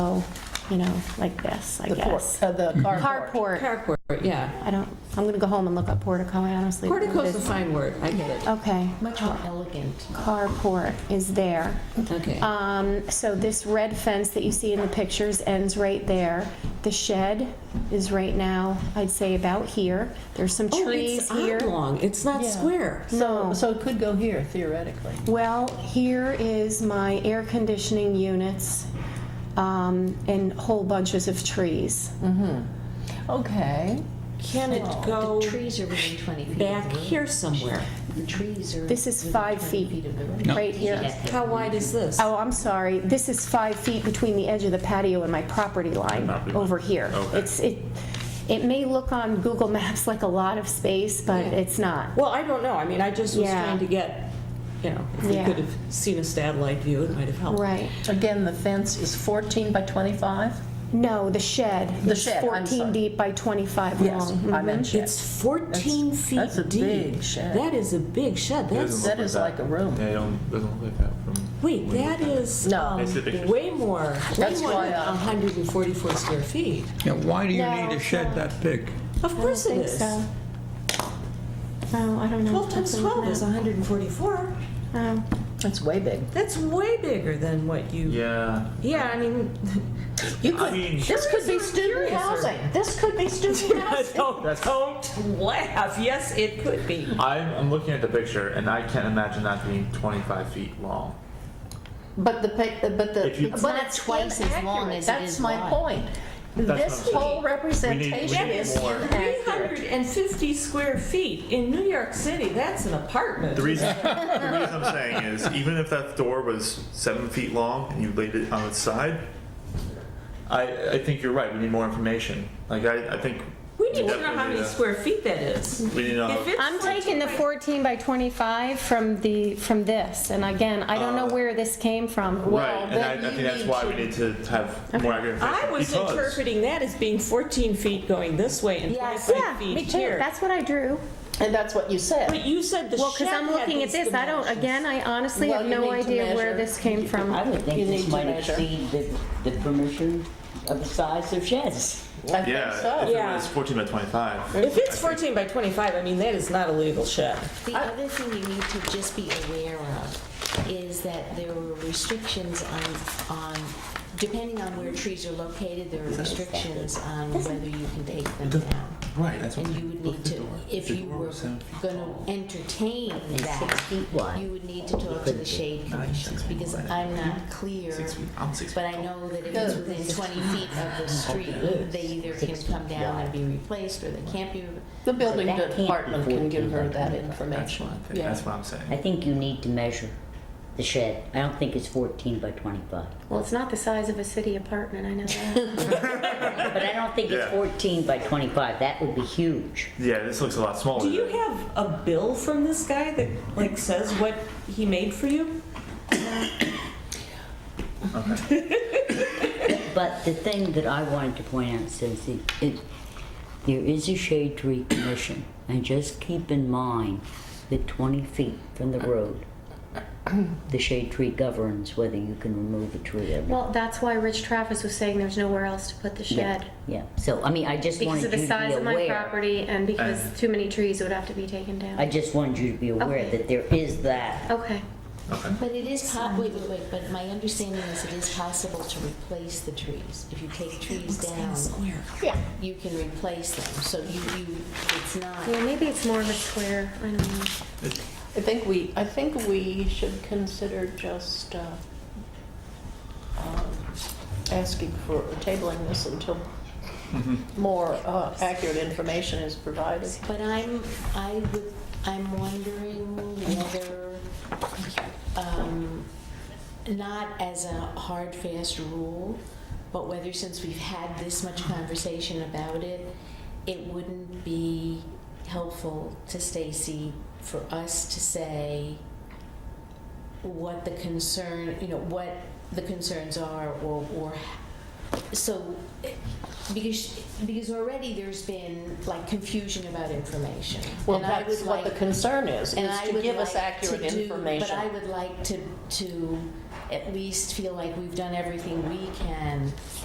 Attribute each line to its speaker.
Speaker 1: you know, like this, I
Speaker 2: The por-
Speaker 1: guess.
Speaker 2: uh, The carport.
Speaker 1: Carport.
Speaker 3: Carport, yeah.
Speaker 1: I don't, I'm gonna go home and look up portico, I honestly.
Speaker 3: Portico's a fine word, I get it.
Speaker 1: Okay.
Speaker 4: Much more elegant.
Speaker 1: Carport is there.
Speaker 3: Okay.
Speaker 1: Um, so this red fence that you see in the pictures ends right there. The shed is right now, I'd say about here. There's some
Speaker 3: Oh,
Speaker 1: trees
Speaker 3: it's
Speaker 1: here.
Speaker 3: oblong, it's not
Speaker 2: Yeah.
Speaker 3: square.
Speaker 1: No.
Speaker 2: So it could go here theoretically.
Speaker 1: Well, here is my air conditioning units um, and whole bunches of trees.
Speaker 2: Okay.
Speaker 3: Can it
Speaker 4: The
Speaker 3: go
Speaker 4: trees are within 20 feet. of
Speaker 3: back
Speaker 4: the road.
Speaker 3: here somewhere?
Speaker 4: The trees are.
Speaker 1: This is
Speaker 4: within
Speaker 1: five
Speaker 4: 20
Speaker 1: feet,
Speaker 4: of the road.
Speaker 1: right here.
Speaker 4: Yeah.
Speaker 3: How wide is this?
Speaker 1: Oh, I'm sorry. This is five feet between the edge of the patio and my property line
Speaker 5: Property line.
Speaker 1: over here.
Speaker 5: Okay.
Speaker 1: It's, it, it may look on Google Maps like a lot of space, but
Speaker 3: Yeah.
Speaker 1: it's not.
Speaker 3: Well, I don't know, I mean, I just was
Speaker 1: Yeah.
Speaker 3: trying to get, you know, if we
Speaker 1: Yeah.
Speaker 3: could have seen a satellite view, it might have helped.
Speaker 1: Right.
Speaker 2: Again, the fence is 14 by 25?
Speaker 1: No, the shed.
Speaker 2: The
Speaker 1: It's
Speaker 2: shed, I'm
Speaker 1: 14
Speaker 2: sorry.
Speaker 1: deep by 25
Speaker 2: Yes,
Speaker 1: long. Mm-hmm.
Speaker 2: I meant shed.
Speaker 3: It's 14 feet deep.
Speaker 2: that's a big shed.
Speaker 3: That is a big shed,
Speaker 5: It
Speaker 3: that's,
Speaker 5: doesn't
Speaker 2: that
Speaker 5: look
Speaker 2: is like a room.
Speaker 5: Yeah, it don't, doesn't look like that from.
Speaker 3: wait, that is
Speaker 2: No.
Speaker 3: um,
Speaker 5: I see the pictures.
Speaker 3: way more, way
Speaker 2: That's
Speaker 3: more
Speaker 2: why,
Speaker 3: than
Speaker 2: uh,
Speaker 3: 144 square feet.
Speaker 6: Now, why do you
Speaker 1: No,
Speaker 6: need a
Speaker 1: it's
Speaker 6: shed
Speaker 1: not.
Speaker 6: that big?
Speaker 3: Of course it
Speaker 1: think
Speaker 3: is.
Speaker 1: so. Oh, I don't know.
Speaker 3: 12 times 12 is 144.
Speaker 1: Oh.
Speaker 2: That's way big.
Speaker 3: That's way bigger than what you.
Speaker 5: Yeah.
Speaker 3: Yeah, I mean,
Speaker 2: You
Speaker 5: I
Speaker 2: could,
Speaker 5: mean-
Speaker 2: this could be student housing.
Speaker 4: This could be student housing.
Speaker 3: don't, don't laugh. Yes, it could be.
Speaker 5: I'm, I'm looking at the picture and I can't imagine that being 25 feet long.
Speaker 4: But the,
Speaker 2: uh,
Speaker 4: pic- but the,
Speaker 5: If you-
Speaker 4: it's not twice as long
Speaker 2: inaccurate.
Speaker 4: as it
Speaker 2: That's
Speaker 4: is
Speaker 2: my
Speaker 4: wide.
Speaker 2: point.
Speaker 5: what
Speaker 2: This
Speaker 5: I'm saying.
Speaker 2: whole
Speaker 5: We need-
Speaker 2: representation
Speaker 5: need
Speaker 2: is
Speaker 5: more.
Speaker 2: inaccurate.
Speaker 3: 350 square feet in New York City. That's an apartment.
Speaker 5: The reason, the reason I'm saying is even if that door was seven feet long and you laid it on its side, I, I think you're right. We need more information. Like, I, I think.
Speaker 3: we need to know
Speaker 5: definitely
Speaker 3: how many
Speaker 5: need a-
Speaker 3: square feet that is.
Speaker 5: We need to know.
Speaker 3: If it's
Speaker 1: I'm
Speaker 3: 14
Speaker 1: taking the 14 by 25 from the, from this, and again, I don't know where this came from.
Speaker 5: right, and I, I
Speaker 4: then
Speaker 5: think
Speaker 4: you
Speaker 5: that's
Speaker 4: need
Speaker 5: why
Speaker 4: to-
Speaker 5: we need to have more accurate information.
Speaker 3: I was
Speaker 5: because-
Speaker 3: interpreting that as being 14 feet going this way and
Speaker 4: Yes.
Speaker 3: 25
Speaker 1: Yeah,
Speaker 3: feet
Speaker 1: Um, me too,
Speaker 3: here.
Speaker 1: that's what I drew.
Speaker 2: And that's what you said.
Speaker 3: but you said the
Speaker 1: Well, because
Speaker 3: shed
Speaker 1: I'm
Speaker 3: had
Speaker 1: looking at
Speaker 3: these
Speaker 1: this, I don't,
Speaker 3: dimensions.
Speaker 1: again, I honestly have
Speaker 2: Well, you
Speaker 1: no
Speaker 2: need to
Speaker 1: idea where
Speaker 2: measure.
Speaker 1: this came
Speaker 7: I
Speaker 1: from.
Speaker 7: would
Speaker 2: You
Speaker 7: think
Speaker 2: need
Speaker 7: this
Speaker 2: to
Speaker 7: might
Speaker 2: measure.
Speaker 7: exceed the, the permission of the size of sheds.
Speaker 2: I think
Speaker 5: Yeah,
Speaker 2: so.
Speaker 5: if it
Speaker 3: Yeah.
Speaker 5: was 14 by 25.
Speaker 3: If it's 14 by 25, I mean, that is not a legal shed.
Speaker 4: The other thing you need to just be aware of is that there were restrictions on, on, depending on where trees are located, there are restrictions on whether you can take them down.
Speaker 5: Right, that's what
Speaker 4: And you would
Speaker 5: look
Speaker 4: need
Speaker 5: at the
Speaker 4: to,
Speaker 5: door.
Speaker 4: if
Speaker 5: The
Speaker 4: you
Speaker 5: door
Speaker 4: were
Speaker 5: was seven feet
Speaker 4: gonna entertain
Speaker 7: six
Speaker 4: that,
Speaker 7: feet wide.
Speaker 4: you would need to talk to the shade commissions, because I'm not clear.
Speaker 5: Six feet. I'm six
Speaker 4: But
Speaker 5: feet
Speaker 4: I know that if it's within twenty feet of the street, they either can come down and be replaced, or they can't be. re-
Speaker 2: The building
Speaker 7: That can't be
Speaker 2: department can give her that
Speaker 7: 14.
Speaker 5: That's
Speaker 2: information.
Speaker 5: what I think.
Speaker 2: Yeah.
Speaker 5: That's what I'm
Speaker 7: I
Speaker 5: saying.
Speaker 7: think you need to measure the shed. I don't think it's 14 by 25.
Speaker 1: Well, it's not the size of a city apartment, I know that.
Speaker 7: But I don't think it's
Speaker 5: Yeah.
Speaker 7: 14 by 25. That would be huge.
Speaker 5: Yeah, this looks a lot smaller.
Speaker 3: Do you have a bill from this guy that like says what he made for you?
Speaker 7: But the thing that I wanted to point out, Cynthia, it, there is a shade tree commission, and just keep in mind that 20 feet from the road, the shade tree governs whether you can remove a tree or not.
Speaker 1: Well, that's why Rich Travis was saying there's nowhere else to put the
Speaker 7: Yeah,
Speaker 1: shed.
Speaker 7: Yeah, so, I mean, I just
Speaker 1: Because
Speaker 7: wanted you
Speaker 1: of the
Speaker 7: to be aware. Uh.
Speaker 1: size of my property and because too many trees would have to be taken
Speaker 7: I
Speaker 1: down.
Speaker 7: just wanted you to be aware
Speaker 1: Okay.
Speaker 7: that there is that.
Speaker 1: Okay.
Speaker 4: But it is po, wait, wait, wait, but my understanding is it is possible to replace the trees. If you take trees down,
Speaker 1: Yeah.
Speaker 4: you can replace them, so you, you, it's not.
Speaker 1: Yeah, maybe it's more of a square, I don't know.
Speaker 2: I think we, I think we should consider just uh, um, asking for, tabling this until more uh, accurate information is provided.
Speaker 4: But I'm, I would, I'm wondering whether, um, not as a hard, fast rule, but whether since we've had this much conversation about it, it wouldn't be helpful to Stacy for us to say what the concern, you know, what the concerns are or, or, so, eh, because, because already there's been like confusion about information.
Speaker 2: Well,
Speaker 4: And I
Speaker 2: that's
Speaker 4: would
Speaker 2: what the
Speaker 4: like-
Speaker 2: concern is,
Speaker 4: and
Speaker 2: is
Speaker 4: I
Speaker 2: to
Speaker 4: would
Speaker 2: give us
Speaker 4: like
Speaker 2: accurate
Speaker 4: to do- But I
Speaker 2: information.
Speaker 4: would like to, to at least feel like we've done everything we can